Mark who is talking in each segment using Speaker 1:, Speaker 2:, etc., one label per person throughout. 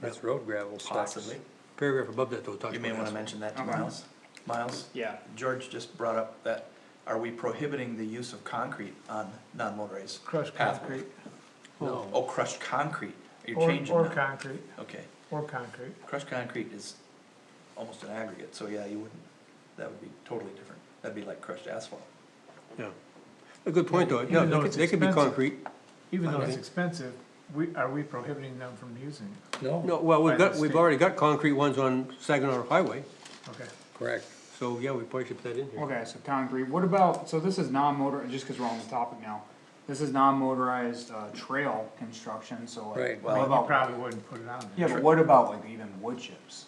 Speaker 1: That's road gravel stacks.
Speaker 2: Possibly.
Speaker 1: Paragraph above that though, talks
Speaker 2: You may
Speaker 1: about
Speaker 2: wanna
Speaker 1: asphalt.
Speaker 2: mention that to
Speaker 3: Okay.
Speaker 2: Miles. Miles,
Speaker 3: Yeah,
Speaker 2: George just brought up that, are we prohibiting the use of concrete on non-motorized?
Speaker 4: Crushed
Speaker 2: pathways?
Speaker 4: concrete.
Speaker 2: Oh,
Speaker 1: No,
Speaker 2: crushed concrete, you're
Speaker 4: Or,
Speaker 2: changing
Speaker 4: or
Speaker 2: that,
Speaker 4: concrete,
Speaker 2: okay,
Speaker 4: or concrete.
Speaker 2: crushed concrete is almost an aggregate, so yeah, you wouldn't, that would be totally different, that'd be like crushed asphalt.
Speaker 1: yeah. A good point
Speaker 2: Oh.
Speaker 1: though, yeah,
Speaker 4: Even
Speaker 1: they
Speaker 4: though
Speaker 1: could-
Speaker 4: it's
Speaker 1: they could be
Speaker 4: expensive.
Speaker 1: concrete.
Speaker 4: Even though it's
Speaker 1: Okay.
Speaker 4: expensive, we, are we prohibiting them from using it?
Speaker 3: Oh.
Speaker 1: No, well, we've
Speaker 4: By
Speaker 1: got, we've
Speaker 4: mistake.
Speaker 1: already got concrete ones on Saginaw Highway,
Speaker 4: Okay.
Speaker 1: correct. So, yeah, we probably should put that in here.
Speaker 3: okay, so concrete, what about, so this is non-motor, just cause we're on the topic now. This is non-motorized, uh, trail construction, so
Speaker 1: Right.
Speaker 3: like,
Speaker 2: Well,
Speaker 3: what
Speaker 4: Well, you
Speaker 3: about,
Speaker 4: probably wouldn't put it on there.
Speaker 3: yeah, but what about like even wood chips?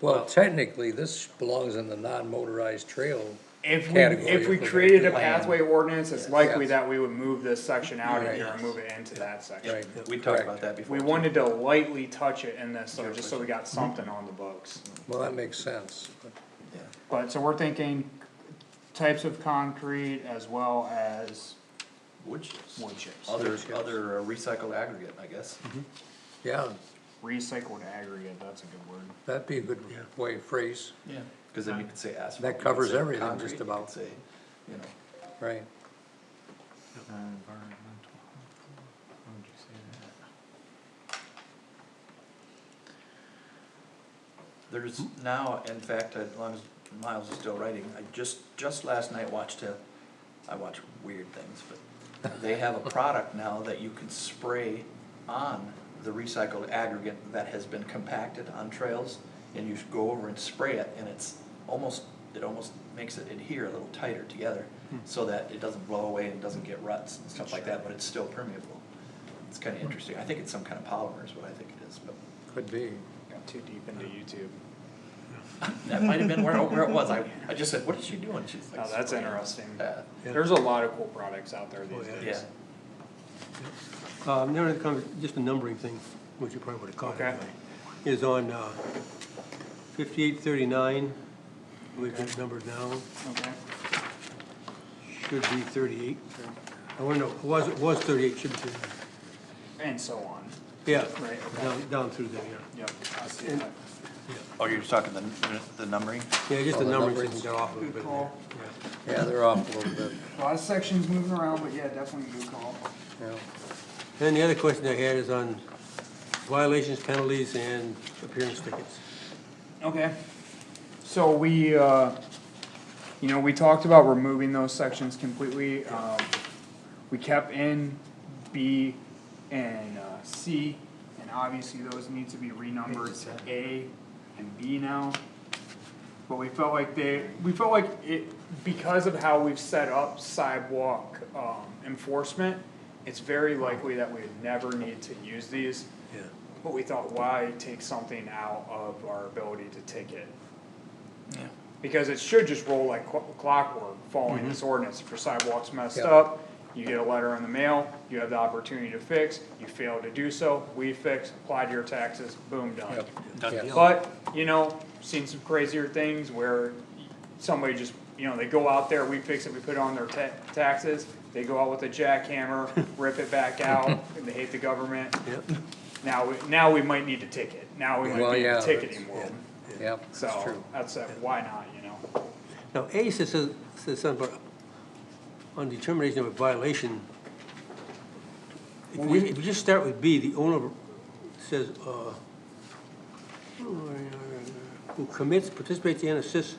Speaker 5: Well, technically, this belongs in the non-motorized trail.
Speaker 3: If we,
Speaker 5: Category
Speaker 3: if we
Speaker 5: of the
Speaker 3: created a
Speaker 2: land.
Speaker 3: pathway ordinance, it's likely
Speaker 5: Yes.
Speaker 3: that we would move this section out of
Speaker 5: Right.
Speaker 3: here and move it into that section.
Speaker 5: Right.
Speaker 2: We talked about
Speaker 5: Correct.
Speaker 2: that before.
Speaker 3: We
Speaker 2: too.
Speaker 3: wanted to lightly touch it in this, so just so we got
Speaker 5: Mm-hmm.
Speaker 3: something on the books.
Speaker 5: Well, that makes sense.
Speaker 2: Yeah.
Speaker 3: But, so we're thinking types of concrete as well as
Speaker 2: Wood chips,
Speaker 3: wood chips,
Speaker 2: other,
Speaker 5: chips.
Speaker 2: other uh, recycled aggregate, I guess,
Speaker 5: Yeah,
Speaker 3: recycled aggregate, that's a good word.
Speaker 5: that'd be a good way to phrase,
Speaker 2: yeah, cause then you could say asphalt.
Speaker 5: That
Speaker 2: you could
Speaker 5: covers
Speaker 2: say
Speaker 5: everything,
Speaker 2: concrete,
Speaker 5: just
Speaker 2: you could
Speaker 5: about.
Speaker 2: Say, you know.
Speaker 5: right?
Speaker 4: Uh, Non-environmental. Why would you say that?
Speaker 2: There's now, in fact, as long as Miles is still writing, I just, just last night watched a, I watch weird things, but they have a product now that you can spray on the recycled aggregate that has been compacted on trails, and you go over and spray it, and it's almost, it almost makes it adhere a little tighter together, so that it doesn't blow away and doesn't get ruts and stuff like that, but it's still permeable. It's kinda interesting, I think it's some kind of polymer is what I think it is, but.
Speaker 5: Could be.
Speaker 3: Got too deep into YouTube.
Speaker 2: That might have been where, where it was. I, I just said, what is she doing? She's like.
Speaker 3: Oh, that's
Speaker 2: spraying.
Speaker 3: interesting. Oh,
Speaker 2: Yeah.
Speaker 1: Yeah.
Speaker 3: There's a lot of cool products out there these
Speaker 1: yeah.
Speaker 2: Yeah.
Speaker 3: days.
Speaker 1: Um, another con- just a numbering thing, which you probably would have caught
Speaker 3: Oh. Okay.
Speaker 1: anyway, is on, uh, fifty-eight thirty-nine, believe it's numbered now,
Speaker 3: Okay.
Speaker 1: should be thirty-eight.
Speaker 3: Sure.
Speaker 1: I wanna know, it was, it was thirty-eight, should be thirty-nine.
Speaker 3: And so on.
Speaker 1: Yeah,
Speaker 3: Right, okay.
Speaker 1: down, down through there, yeah,
Speaker 3: Yep, I see
Speaker 1: And-
Speaker 3: that.
Speaker 2: Oh, you're just talking the, the numbering?
Speaker 1: yeah, just
Speaker 5: Oh,
Speaker 1: the
Speaker 5: the
Speaker 1: numbering
Speaker 5: numbers.
Speaker 1: system got off a little
Speaker 3: Good
Speaker 1: bit there,
Speaker 3: call.
Speaker 1: yeah.
Speaker 5: Yeah, they're off a little bit,
Speaker 3: A lot of sections moving around, but yeah, definitely good call.
Speaker 5: yeah.
Speaker 1: Then the other question I had is on violations, penalties, and appearance tickets.
Speaker 3: Okay. So we, uh, you know, we talked about removing those sections completely, um, we kept in B and, uh, C, and obviously those need to be renumbered to A and B now. But we felt like they, we felt like it, because of how we've set up sidewalk, um, enforcement, it's very likely that we would never need to use these.
Speaker 1: Yeah.
Speaker 3: But we thought, why take something out of our ability to ticket?
Speaker 2: Yeah.
Speaker 3: Because it should just roll like clo- clockwork following this ordinance, if your sidewalk's messed
Speaker 5: Yeah.
Speaker 3: up, you get a letter in the mail, you have the opportunity to fix, you fail to do so, we fix, apply to your taxes, boom, done.
Speaker 5: Yeah.
Speaker 3: But, you know, seen some crazier things where somebody just, you know, they go out there, we fix it, we put it on their ta- taxes, they go out with a jackhammer, rip it back out, and they hate the government,
Speaker 1: Yep,
Speaker 3: now, we- now we might need to ticket, now we might
Speaker 5: Well,
Speaker 3: be in
Speaker 5: yeah,
Speaker 3: the
Speaker 5: that's-
Speaker 3: ticketing world,
Speaker 5: Yep, that's
Speaker 3: so,
Speaker 5: true.
Speaker 3: that's, that. why not, you know?
Speaker 1: now, A says, says something about, on determination of a violation. If we, if you just start with B, the owner says, uh, who commits, participates in, assists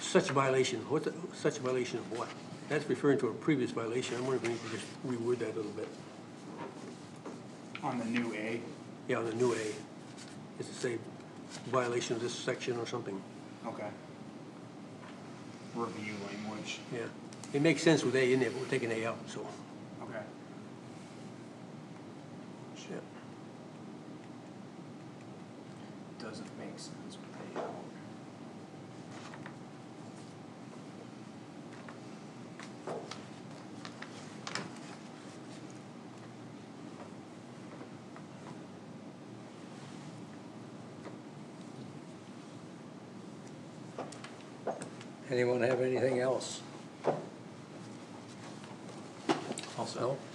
Speaker 1: such violation, what's, the- such violation of what? That's referring to a previous violation, I'm wondering if we could just reword that a little bit.
Speaker 3: On the new A.
Speaker 1: Yeah, on the new A, is to say violation of this section or something,
Speaker 3: Okay. Review language,
Speaker 1: yeah. It makes sense with A in there, but we're taking A out, so.
Speaker 3: okay. Shit. Doesn't make sense with A out.
Speaker 5: Anyone have anything else?
Speaker 2: Also,
Speaker 5: No?